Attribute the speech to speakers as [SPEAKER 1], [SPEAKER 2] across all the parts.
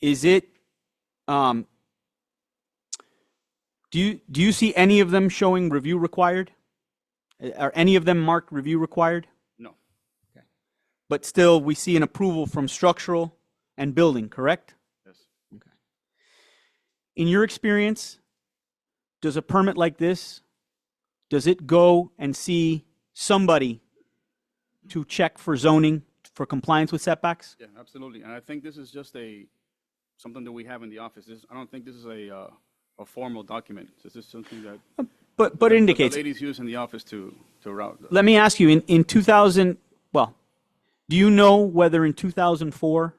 [SPEAKER 1] Is it, um, do you, do you see any of them showing review required? Uh, Are any of them marked review required?
[SPEAKER 2] No.
[SPEAKER 1] But still, we see an approval from structural and building, correct?
[SPEAKER 2] Yes.
[SPEAKER 1] In your experience, does a permit like this, does it go and see somebody to check for zoning, for compliance with setbacks?
[SPEAKER 2] Yeah, absolutely. And I think this is just a, something that we have in the office. This, I don't think this is a, uh, a formal document. This is something that. that
[SPEAKER 1] But, but it indicates,
[SPEAKER 2] The ladies use in the office to, to route. the-
[SPEAKER 1] let me ask you, in, in 2000, well, do you know whether in 2004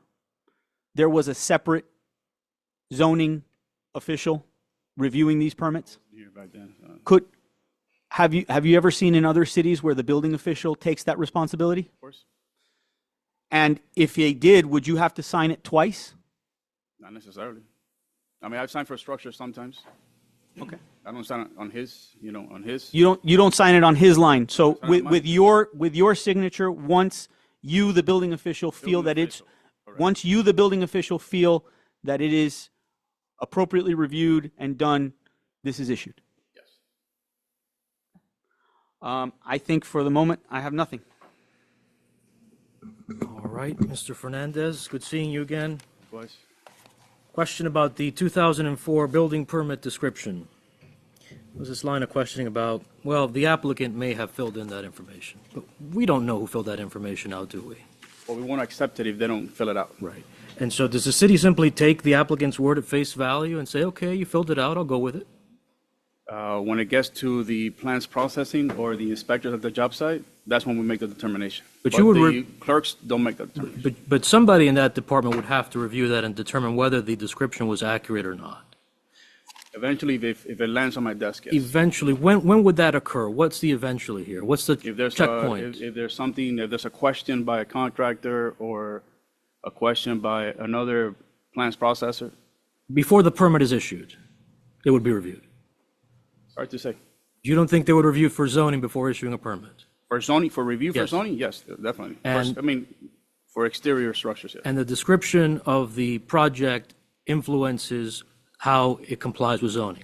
[SPEAKER 1] there was a separate zoning official reviewing these permits?
[SPEAKER 2] Here back then. uh, Of
[SPEAKER 1] Could, have you, have you ever seen in other cities where the building official takes that responsibility?
[SPEAKER 2] course,
[SPEAKER 1] And if they did, would you have to sign it twice?
[SPEAKER 2] not necessarily. I mean, I've signed for structure sometimes.
[SPEAKER 1] Okay.
[SPEAKER 2] I don't sign on- on his, you know, on his.
[SPEAKER 1] You don't, you don't sign it on his line. So
[SPEAKER 2] on
[SPEAKER 1] with,
[SPEAKER 2] mine.
[SPEAKER 1] with your, with your signature, once you, the building official, feel
[SPEAKER 2] Building
[SPEAKER 1] that it's,
[SPEAKER 2] official, correct.
[SPEAKER 1] once you, the building official, feel that it is appropriately reviewed and done, this is issued.
[SPEAKER 2] Yes.
[SPEAKER 1] Um, I think for the moment, I have nothing.
[SPEAKER 3] All right, Mr. Fernandez, good seeing you again.
[SPEAKER 2] Likewise.
[SPEAKER 3] Question about the 2004 building permit description. Was this line of questioning about, well, the applicant may have filled in that information, but we don't know who filled that information out, do we?
[SPEAKER 2] But we won't accept it if they don't fill it out.
[SPEAKER 3] Right. And so does the city simply take the applicant's word at face value and say, okay, you filled it out, I'll go with it?
[SPEAKER 2] Uh, When it gets to the plans processing or the inspectors at the job site, that's when we make the determination.
[SPEAKER 3] But you would
[SPEAKER 2] the
[SPEAKER 3] re-
[SPEAKER 2] Clerks don't make that determination.
[SPEAKER 3] But, but somebody in that department would have to review that and determine whether the description was accurate or not.
[SPEAKER 2] Eventually, if, if it lands on my desk, yes.
[SPEAKER 3] Eventually, when, when would that occur? What's the eventually here? What's the
[SPEAKER 2] If there's, a-
[SPEAKER 3] checkpoint?
[SPEAKER 2] if if there's something, if there's a question by a contractor or a question by another plans processor,
[SPEAKER 3] before the permit is issued, it would be reviewed.
[SPEAKER 2] hard to say.
[SPEAKER 3] You don't think they would review for zoning before issuing a permit?
[SPEAKER 2] For zoning, for review for
[SPEAKER 3] Yes.
[SPEAKER 2] zoning, yes, definitely. For-
[SPEAKER 3] And-
[SPEAKER 2] I mean, for exterior structures, yes.
[SPEAKER 3] And the description of the project influences how it complies with zoning.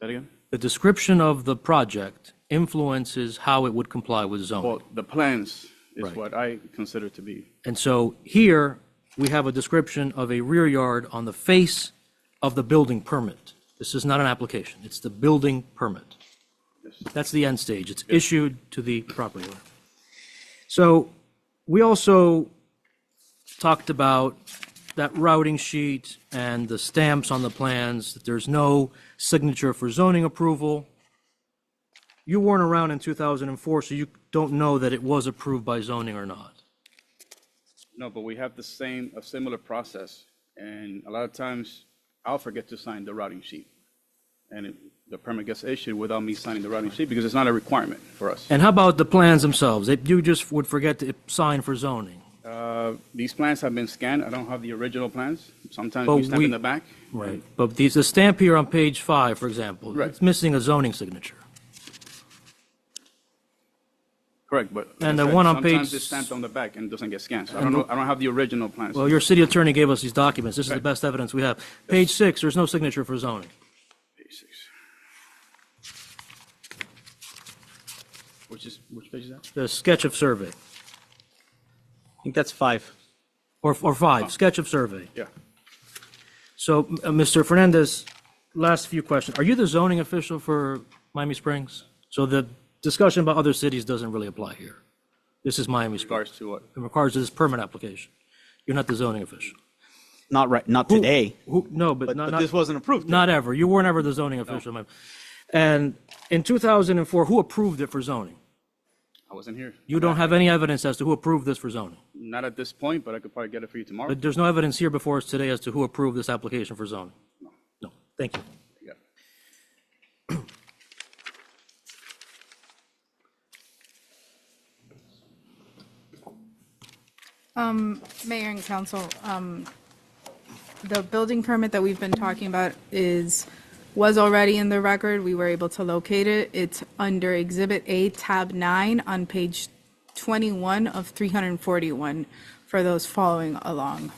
[SPEAKER 2] That again?
[SPEAKER 3] The description of the project influences how it would comply with zoning.
[SPEAKER 2] Well, the plans is
[SPEAKER 3] Right.
[SPEAKER 2] what I consider to be.
[SPEAKER 3] And so here, we have a description of a rear yard on the face of the building permit. This is not an application, it's the building permit. That's the end stage, it's issued to the property owner. So we also talked about that routing sheet and the stamps on the plans, that there's no signature for zoning approval. You weren't around in 2004, so you don't know that it was approved by zoning or not.
[SPEAKER 2] No, but we have the same, a similar process, and a lot of times I'll forget to sign the routing sheet. And it- the permit gets issued without me signing the routing sheet because it's not a requirement for us.
[SPEAKER 3] And how about the plans themselves? That You just would forget to sign for zoning.
[SPEAKER 2] Uh, These plans have been scanned. I don't have the original plans. Sometimes
[SPEAKER 3] But
[SPEAKER 2] we stamp
[SPEAKER 3] we-
[SPEAKER 2] in the back.
[SPEAKER 3] Right. But these, the stamp here on page five, for example.
[SPEAKER 2] Right.
[SPEAKER 3] It's missing a zoning signature.
[SPEAKER 2] Correct, but. like I
[SPEAKER 3] And the
[SPEAKER 2] said,
[SPEAKER 3] one on
[SPEAKER 2] Sometimes
[SPEAKER 3] page
[SPEAKER 2] it's stamped
[SPEAKER 3] s-
[SPEAKER 2] on the back and doesn't get scanned. So I don't know, I don't have the original plans.
[SPEAKER 3] Well, your city attorney gave us these documents. This is the best evidence we have. Page six, there's no signature for zoning.
[SPEAKER 2] Which is, which page is that?
[SPEAKER 3] The sketch of survey,
[SPEAKER 1] I think that's five.
[SPEAKER 3] or, or five, sketch of survey.
[SPEAKER 2] Yeah.
[SPEAKER 3] So, uh, Mr. Fernandez, last few questions. Are you the zoning official for Miami Springs? So the discussion about other cities doesn't really apply here. This is Miami Springs.
[SPEAKER 2] Regards to what?
[SPEAKER 3] In regards to this permit application, you're not the zoning official.
[SPEAKER 1] Not right, not today,
[SPEAKER 3] Who, no, but
[SPEAKER 1] but,
[SPEAKER 3] not,
[SPEAKER 1] but
[SPEAKER 3] not,
[SPEAKER 1] this wasn't approved.
[SPEAKER 3] not ever. You weren't ever the zoning official. ma'am. And in 2004, who approved it for zoning?
[SPEAKER 2] I wasn't here.
[SPEAKER 3] You don't have any evidence as to who approved this for zoning.
[SPEAKER 2] Not at this point, but I could probably get it for you tomorrow.
[SPEAKER 3] But there's no evidence here before us today as to who approved this application for zoning. No, thank you.
[SPEAKER 2] Yeah.
[SPEAKER 4] Mayor and council, um, the building permit that we've been talking about is, was already in the record. We were able to locate it. It's under Exhibit A, Tab 9, on page 21 of 341, for those following along.